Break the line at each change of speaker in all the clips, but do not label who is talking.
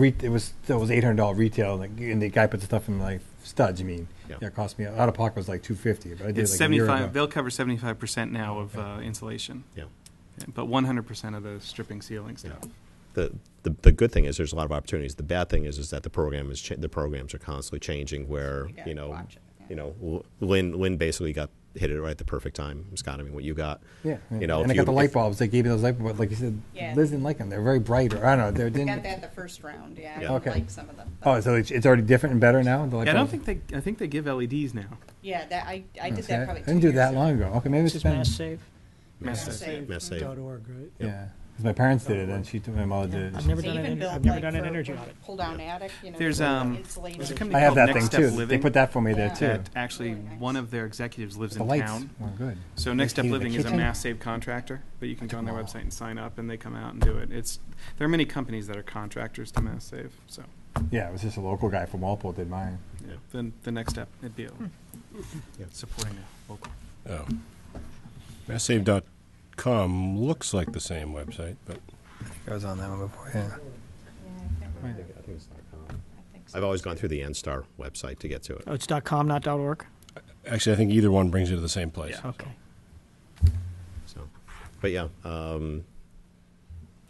re- it was it was eight hundred dollar retail, like, and the guy put the stuff in my studs. You mean?
Yeah.
Yeah, it cost me out of pocket was like two fifty, but I did
It's
like a year
seventy-five,
ago.
they'll cover seventy-five percent now of uh, insulation.
Yeah.
But one hundred percent of the stripping ceiling
Yeah.
stuff.
The, the, the good thing is there's a lot of opportunities. The bad thing is is that the program is cha- the programs are constantly changing. Where
You gotta
you know,
watch it, yeah.
you know, L- Lynn Lynn basically got hit it right at the perfect time. Scott, I mean, what you got?
Yeah,
you know,
and I
if
got
you-
the
if-
light bulbs. They gave me those light bulbs, like you said.
Yeah.
Liz didn't like them. They're very bright, or I don't know. They
Got
didn't.
that the first round, yeah. I
Yeah.
don't
Okay.
like some of them. but-
Oh, so it's, it's already different and better now. The light
Yeah, I don't
bulbs?
think they, I think they give LEDs now.
Yeah, that, I, I did
Okay,
that probably two years ago.
didn't do that long ago. Okay, maybe it's
This is
been.
Mass Save.
Mass
Mass
Save.
Save.
Mass Save.
dot org, right?
Yeah, 'Cause my parents did it, and she took my mother did. it.
I've never
They
done an,
even
ener-
built,
I've never
like,
done an
for-
energy
for
audit.
Pull down attic, you know.
There's,
for
um,
insulating.
there's a company
I have
called
that
Next
thing
Step
too. They
Living
put that for me there
Yeah.
too.
That actually,
Really nice.
one of their executives lives
The
in
lights
town.
were good.
So Next Step
They came to
Living
the
is a
kitchen.
mass save contractor, but you can go on their
Wow.
website and sign up, and they come out and do it. It's, there are many companies that are contractors to mass save, so,
Yeah, it was just a local guy from Walpole did mine.
yeah, then the next step, it'd be a-
Hmm.
Yeah.
supporting a local.
Oh. MassSave.com looks like the same website, but
I was on that one before. Yeah.
Yeah, I can't remember.
I think it's .com.
I think so.
I've always gone through the NSTAR website to get to it.
Oh, it's dot com, not dot org?
actually, I think either one brings you to the same place.
Oh,
Yeah.
Okay.
So, but yeah, um,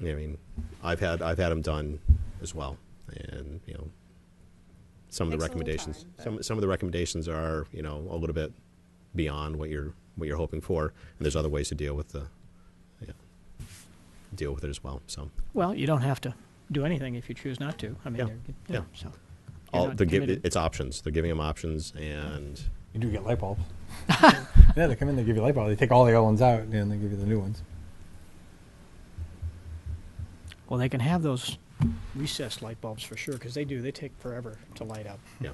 I mean, I've had I've had them done as well, and you know, some of the
Takes a little
recommendations
time, but-
some some of the recommendations are you know a little bit beyond what you're what you're hoping for, and there's other ways to deal with the yeah, deal with it as well. So,
Well, you don't have to do anything if you choose not to. I mean,
Yeah.
they're- you know, so.
all
not
they're give,
committed.
it's options. They're giving them options, and
You do get light bulbs. yeah, they come in, they give you light bulbs. They take all the old ones out and they give you the new ones.
Well, they can have those recessed light bulbs for sure, because they do, they take forever to light up.
yeah.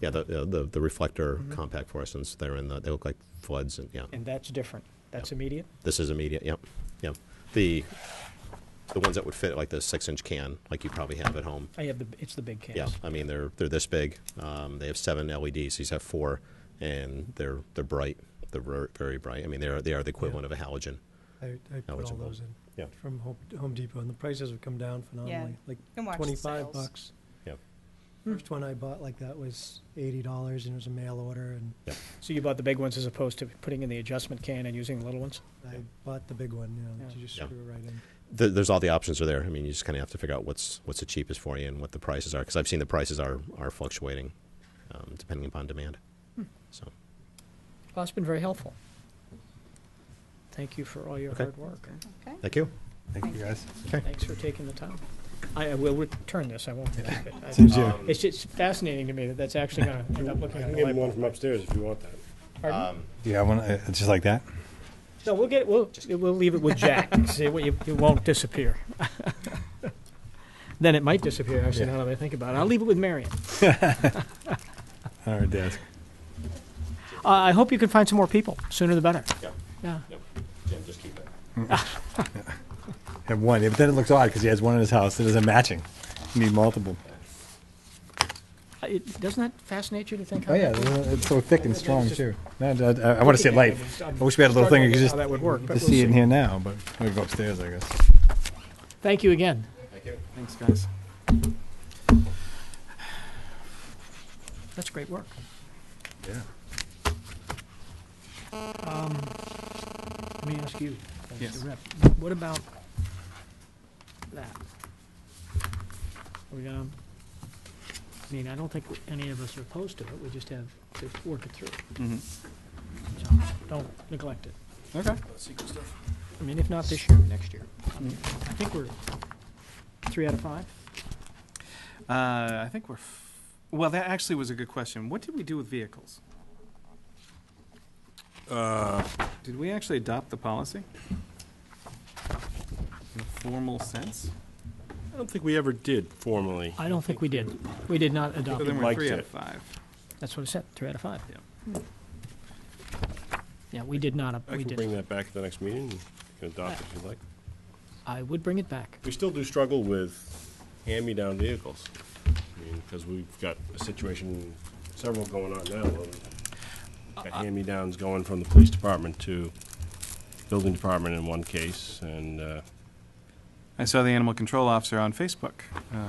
Yeah, the, the- the the reflector
Mm-hmm.
compact fluorescents they're in the they look like floods and yeah
And that's different. That's immediate?
This is immediate. Yep, yep. The the ones that would fit like the six inch can, like you probably have at home.
I have the, it's the big cans.
Yeah, I mean they're they're this big. Um, they have seven LEDs. These have four, and they're they're bright. They're ver- very bright. I mean they are they are the equivalent of a halogen.
I, I put all
Eligible.
those in.
Yeah.
From Home, Home Depot, and the prices have come down phenomenally, like
can watch the
twenty-five
sales.
bucks.
Yep.
First one I bought like that was eighty dollars, and it was a mail order, and
So you bought the big ones as opposed to putting in the adjustment can and using the little ones?
I bought the big one, you know,
Yeah.
you just
Yeah.
screw it right in.
There, there's all the options are there. I mean you just kind of have to figure out what's what's the cheapest for you and what the prices are because I've seen the prices are are fluctuating um, depending upon demand. So
Well, it's been very helpful. Thank you for all your
Okay.
hard work.
Okay.
thank you.
Thank you guys.
Thanks for taking the time. I I will return this, I won't keep it. I-
Seems you.
It's just fascinating to me that that's actually going to end up looking at the light bulb.
from upstairs if you want that.
Pardon?
Do you have one uh, just like that?
No, we'll get, it- we'll, we'll leave it with Jack, see, what you- it won't disappear. Then it might disappear, actually, now that I think about it. I'll leave it with Marion.
On our desk.
Uh, I hope you can find some more people, sooner the better. Yeah.
just keep it.
Have one, yeah, but then it looks odd because he has one in his house that isn't matching. You need multiple.
Uh, it- Doesn't that fascinate you to think?
Oh
how
yeah,
that-
it's so thick and
It's
strong
just-
too. No, I, I, want to see it live. I wish we had a little thing you could just
How that would work, but
just
we'll
see it
see.
in here now, but we go upstairs, I guess.
Thank you again.
Thanks, guys.
That's great work.
Yeah.
Um, Let me ask you, as the
Yes.
rep, what about that? Are we gonna, I mean, I don't think any of us are opposed to it, we just have to work it through.
Mhm.
So, don't neglect it.
Okay.
I mean, if not this year, next year. I mean, I think we're three out of five.
Uh, I think we're, f- well, that actually was a good question. What did we do with vehicles?
Uh.
Did we actually adopt the policy? In a formal sense?
I don't think we ever did formally.
I don't think we did. We did not adopt
So then
it.
we're
liked
three out
it.
of five.
That's what I said, three out of five.
Yeah.
Yeah, we did not,
I
we
can bring
did.
that back at the next meeting. You can adopt it if you'd like.
I would bring it back.
We still do struggle with hand-me-down vehicles. I mean, because we've got a situation, several going on now. where we've
Uh,
Got hand-me-downs going from the police department to building department in one case, and, uh,
I saw the animal control officer on Facebook. uh,